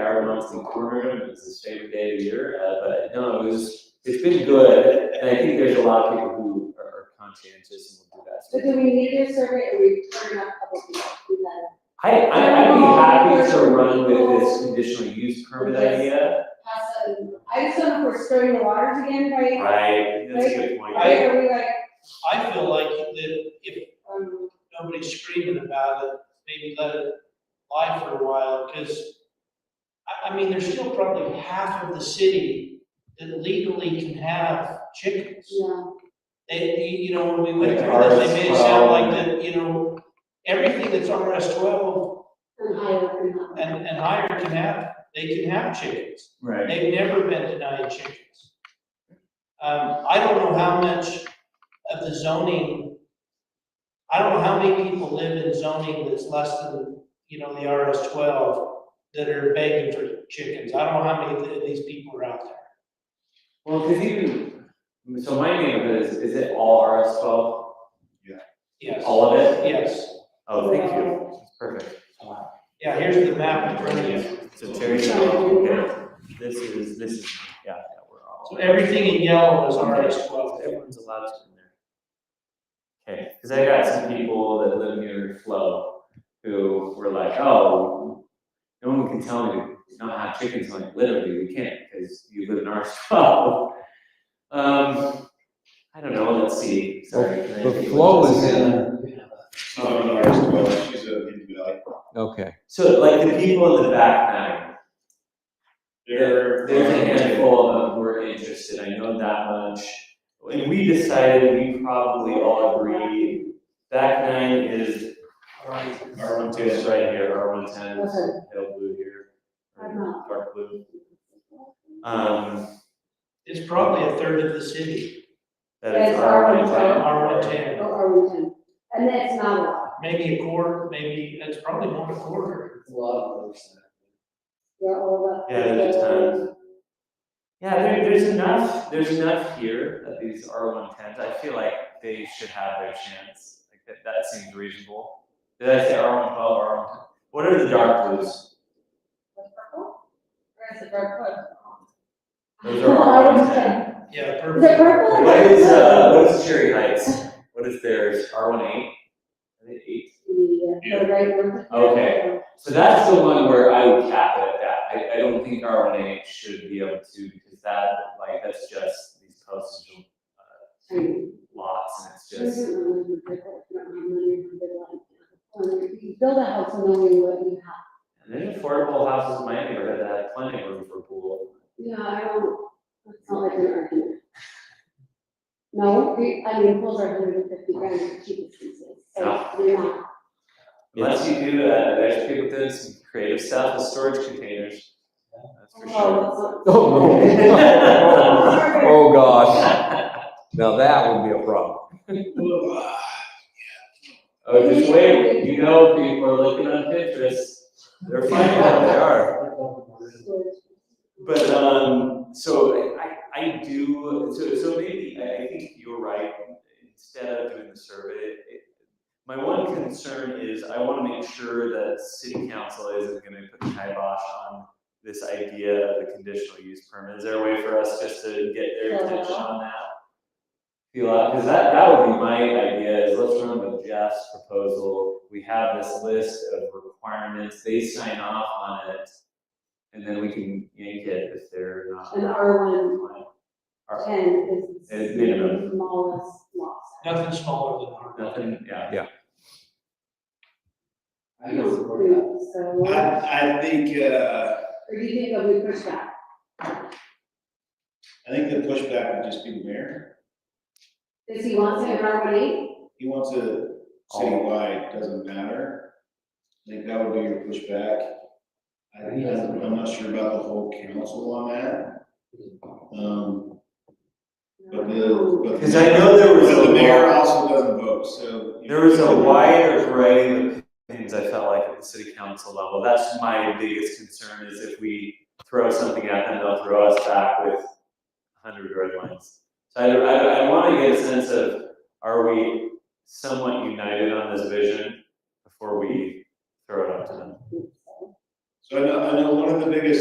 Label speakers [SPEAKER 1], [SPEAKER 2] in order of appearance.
[SPEAKER 1] months in Cornwall, it's a strange day of year, uh, but no, it was, it's been good, and I think there's a lot of people who are- are conscientious and will do that.
[SPEAKER 2] But
[SPEAKER 1] sort of
[SPEAKER 2] do we need a survey or we turn up public hearing?
[SPEAKER 1] I, I, I'd be happy to run with this conditional use permit idea,
[SPEAKER 2] Pass a, I just don't know if we're stirring the waters again by,
[SPEAKER 1] right? That's a good point.
[SPEAKER 2] right, are we like,
[SPEAKER 3] I feel like that if
[SPEAKER 2] um,
[SPEAKER 3] nobody's screaming about it, maybe let it lie for a while, because I, I mean, there's still probably half of the city that legally can have chickens.
[SPEAKER 2] no,
[SPEAKER 3] They, you- you know, when we went
[SPEAKER 1] Like
[SPEAKER 3] through
[SPEAKER 1] RS
[SPEAKER 3] this, they made it sound
[SPEAKER 1] 12.
[SPEAKER 3] like that, you know, everything that's RS twelve
[SPEAKER 2] and higher than that.
[SPEAKER 3] and, and higher can have, they can have chickens.
[SPEAKER 1] Right.
[SPEAKER 3] They've never been denied chickens. Um, I don't know how much of the zoning, I don't know how many people live in zoning that's less than, you know, the RS twelve that are begging for chickens. I don't know how many of these people are out there.
[SPEAKER 1] Well, cause even, so my neighborhood is, is it all RS twelve?
[SPEAKER 3] Yes,
[SPEAKER 1] All of it?
[SPEAKER 3] yes.
[SPEAKER 1] Oh, thank you. Perfect. Wow.
[SPEAKER 3] Yeah, here's the map in front of you.
[SPEAKER 1] So Terry's all, okay, this is, this is, yeah, yeah, we're all.
[SPEAKER 3] So everything in yellow is RS twelve.
[SPEAKER 1] Everyone's allowed to in there. Okay, because I got some people that live near Flow who were like, oh, no one can tell me to not have chickens. I'm like, literally, we can't because you live in our twelve. Um, I don't know, let's see, sorry. can I
[SPEAKER 4] The
[SPEAKER 1] take a
[SPEAKER 4] flow
[SPEAKER 1] look? Oh,
[SPEAKER 4] is in,
[SPEAKER 5] She's not an artist, well, she's an individual.
[SPEAKER 4] okay.
[SPEAKER 1] So like the people in the back nine, there, there's a handful of them who are interested, I know that much. And we decided, we probably all agree, back nine is R one two is right here, R one ten is
[SPEAKER 2] Okay.
[SPEAKER 1] pale blue here,
[SPEAKER 2] I'm not.
[SPEAKER 1] dark blue. Um,
[SPEAKER 3] It's probably a third of the city,
[SPEAKER 1] that is
[SPEAKER 2] That's
[SPEAKER 1] R one ten.
[SPEAKER 2] R110.
[SPEAKER 3] R one ten.
[SPEAKER 2] Or are we ten? And that's not a lot,
[SPEAKER 3] Maybe a quarter, maybe, it's probably more than a quarter.
[SPEAKER 2] we're all that.
[SPEAKER 1] Yeah, there's a ton. Yeah, there, there's enough, there's enough here that these R one tens, I feel like they should have their chance, like that, that seems reasonable. Did I say R one twelve, R one, what are the dark blues?
[SPEAKER 2] That's purple? Or is it red hood?
[SPEAKER 1] Those are R one ten.
[SPEAKER 2] R110.
[SPEAKER 3] Yeah,
[SPEAKER 2] Is it
[SPEAKER 3] perfect.
[SPEAKER 2] purple? or
[SPEAKER 1] What is, uh,
[SPEAKER 2] red?
[SPEAKER 1] what is Cherry Heights? What is theirs, R one eight? I think eight.
[SPEAKER 2] Yeah, the right one.
[SPEAKER 1] Okay. So that's the one where I would cap it at that. I, I don't think R one A should be able to, because that, like, that's just these postage uh,
[SPEAKER 2] Right.
[SPEAKER 1] lots, and it's just,
[SPEAKER 2] You build a house knowing what you have.
[SPEAKER 1] and then affordable houses in my neighborhood that had plenty of room for pool.
[SPEAKER 2] Yeah, I don't, it's not like an argument. No, we- I mean, pools are hundred and fifty grand for cheapest pieces, so we're not.
[SPEAKER 1] Unless you do, uh, there's people doing some creative stuff with storage containers, that's for sure.
[SPEAKER 2] Oh,
[SPEAKER 4] Oh,
[SPEAKER 2] that's not-
[SPEAKER 4] no. Oh, gosh. Now that would be a problem.
[SPEAKER 1] Oh, just wait, you know, people are looking on Pinterest, they're finding out they are. But, um, so I, I do, so, so maybe, I I think you're right, instead of doing the survey, it- my one concern is I wanna make sure that city council isn't gonna put the kibosh on this idea of the conditional use permit. Is there a way for us just to get their attention on that? Feel out, cause that, that would be my idea, is let's run with Jeff's proposal. We have this list of requirements, they sign off on it, and then we can yank it if they're not.
[SPEAKER 2] An R one
[SPEAKER 1] Or-
[SPEAKER 2] ten is
[SPEAKER 1] It's minimum.
[SPEAKER 2] the smallest lot. size.
[SPEAKER 3] Nothing smaller than ours.
[SPEAKER 1] Nothing, yeah.
[SPEAKER 5] I know.
[SPEAKER 2] So, or
[SPEAKER 5] I, I think, uh,
[SPEAKER 2] do you think that we push back?
[SPEAKER 5] I think the pushback would just be the mayor.
[SPEAKER 2] Does he want to have R one eight?
[SPEAKER 5] He wants a citywide, doesn't matter. I think that would be your pushback. I think, I'm not sure about the whole council on that. Um, but the, but.
[SPEAKER 1] Because I know there was
[SPEAKER 5] But
[SPEAKER 1] a
[SPEAKER 5] the mayor
[SPEAKER 1] lot-
[SPEAKER 5] also doesn't vote, so.
[SPEAKER 1] There was a wider array of opinions I felt like at the city council level. That's my biggest concern is if we throw something at them, they'll throw us back with a hundred red lines. So I, I, I wanna get a sense of, are we somewhat united on this vision before we throw it up to them?
[SPEAKER 5] So I know, I know one of the biggest